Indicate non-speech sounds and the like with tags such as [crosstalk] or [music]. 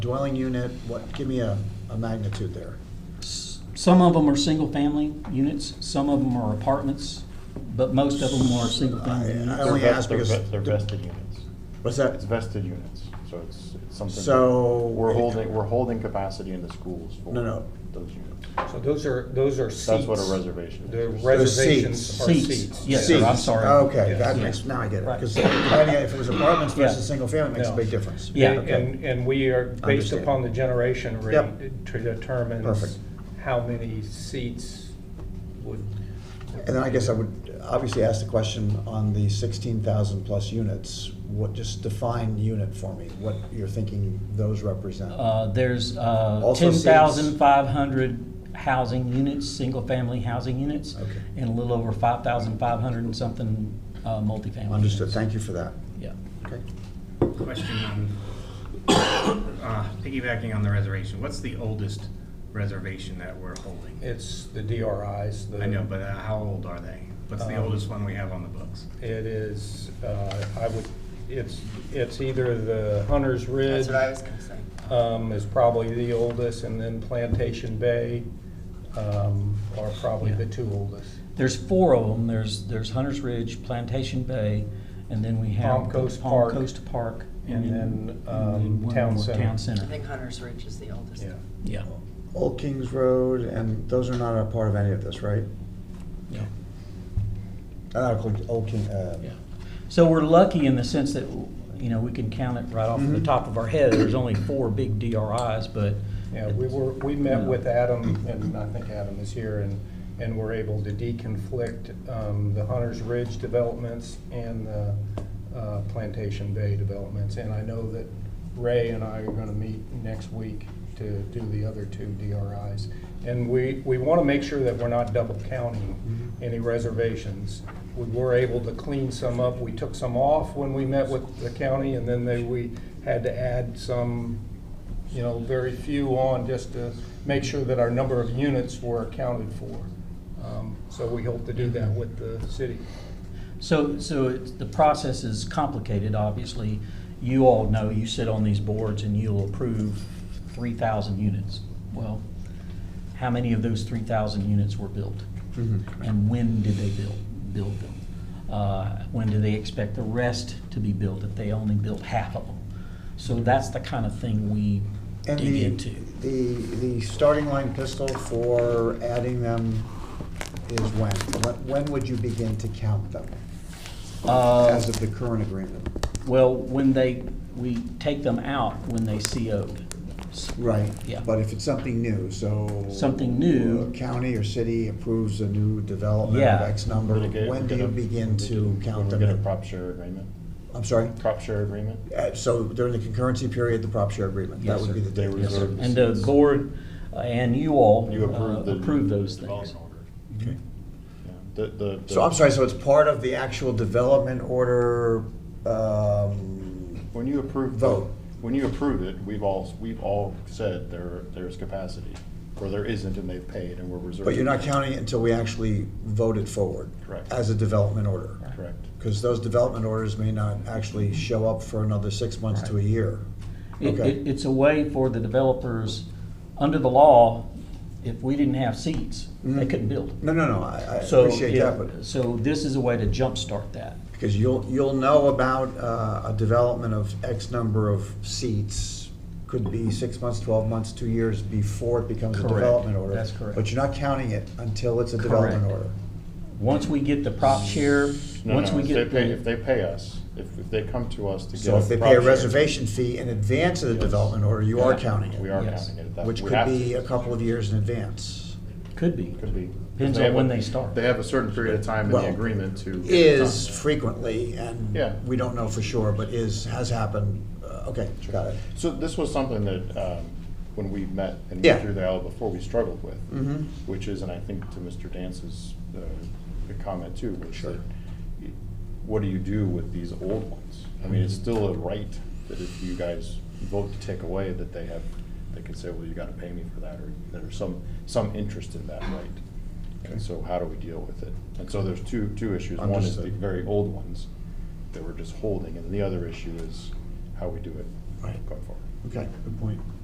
Dwelling unit, what, give me a, a magnitude there. Some of them are single-family units, some of them are apartments, but most of them are single-family I- units. I only They're ask vest- they're because ve- They're the- vested units. What's It's that? vested units, so it's it's something. that So- We're holding, we're holding capacity in the schools for No, no. those units. So those are, those are seats. That's what a reservation is. The They're seats. reservations are Seats. seats. Yes, Yeah. sir, I'm Seats. sorry. Okay, Yes. that Yeah. makes, now I get it. Right. Because if it was apartments Yeah. versus single family, it makes a No. big difference. Yeah. And- Okay. And, and we are, based Understand. upon the generation Yep. rate, to determine Perfect. how many seats would, And then I guess I would obviously ask the question on the sixteen thousand plus units, what, just define unit for me, what you're thinking those represent. Uh, There's uh, Also seats. 10,500 housing units, single-family housing units, Okay. and a little over 5,500 and something uh, multifamily. Understood, units. thank you for that. Yeah. Okay. Question on, [coughs] uh, piggybacking on the reservation, what's the oldest reservation that we're holding? it's the DRIs. the- I know, but uh, how old are they? What's the Um, oldest one we have on the books? It is, uh, I would, it's, it's either the Hunter's Ridge. That's what I was gonna say. um, is probably the oldest, and then Plantation Bay um, are probably the two oldest. There's four of them. There's, there's Hunter's Ridge, Plantation Bay, and then we have. Palm Coast Palm Park. Coast Park. And then, um, and then one Town more, Center. Town I Center, think Hunter's Ridge is the oldest. Yeah. yeah. Old Kings Road, and those are not a part of any of this, right? yeah. Uh, Old- Old King, uh, Yeah. So we're lucky in the sense that, you know, we can count it right off the Mm-hmm. Mhm. top of our head. There's only four big DRIs, but. Yeah, we were, we met with Adam, and I think Adam is here, and, and were able to deconflict um, the Hunter's Ridge developments and the uh, Plantation Bay developments. And I know that Ray and I are gonna meet next week to do the other two DRIs. And we, we wanna make sure that we're not double counting any reservations. We were able to clean some up, we took some off when we met with the county, and then they, we had to add some you know, very few on just to make sure that our number of units were accounted for. Um, So we hope to do that with the city. So, so it's- the process is complicated, obviously. You all know, you sit on these boards and you'll approve 3,000 units. Well, how many of those 3,000 units were built? Mm-hmm. And when did they build, build them? Uh, When do they expect the rest to be built if they only built half of them? So that's the kind of thing we And dig the, into. the, the starting line pistol for adding them is when? When- When would you begin to count them Uh, as of the current agreement? Well, when they, we take them out when they CO'd. Right. Yeah. But if it's something new, so. Something new. uh, County or city approves a new development of Yeah. X number, Litigate- when do get you a- begin to count When them? we get a in? prop share agreement, I'm sorry? prop share agreement, Uh, So during the concurrency period, the prop share agreement, that Yes, would be sir. the date. Yes, sir. Reserve the And the seats. board uh, and you all you uh, approve the. approve those things. Okay. Yeah, The, the. So I'm sorry, so it's part of the actual development order, um, When you approve. Vote. When you approve it, we've all, we've all said there, there's capacity, or there isn't and they've paid and we're reserving. But you're not counting it until we actually vote it forward. Correct. As a development order. Correct. Because those development orders may not actually show up for another six months to a Right. year. It, Okay. it, it's a way for the developers, under the law, if we didn't have seats, they Mhm. couldn't build. No, no, no, I, I So appreciate that, if- but, So this is a way to jumpstart that. because you'll, you'll know about, uh, a development of X number of seats, could be six months, twelve months, two years before it becomes a Correct. development order. That's correct. But you're not counting it until it's a development Correct. order. Once we get the prop share, No, once no, we if they get pay, the. if they pay us, if, if they come to us to get. So if they prop pay a share, reservation fee in advance of the Yes. development order, you are Yeah. counting it. We are Yes. counting it at that. Which we could have to. be a couple of years in advance. Could be. Could be. Depends on have when a- they start. They have a certain period of time in the Well, agreement to. Is frequently, and Yeah. we don't know for sure, but is, has happened. Uh, Okay, got it. So this was something that, um, when we met and Yeah. went through the aisle before, we struggled with. Mhm. Which is, and I think to Mr. Dance's, uh, the comment too, which Sure. that, what do you do with these old ones? I mean, Mm-hmm. it's still a right that if you guys vote to take away, that they have, they can say, well, you gotta pay me for that, or there's some, some interest in that right. And so how do we deal with it? And so there's two, two issues. One is the Understood. very old ones that we're just holding, and the other issue is how we do it Right. going forward. Okay, good point.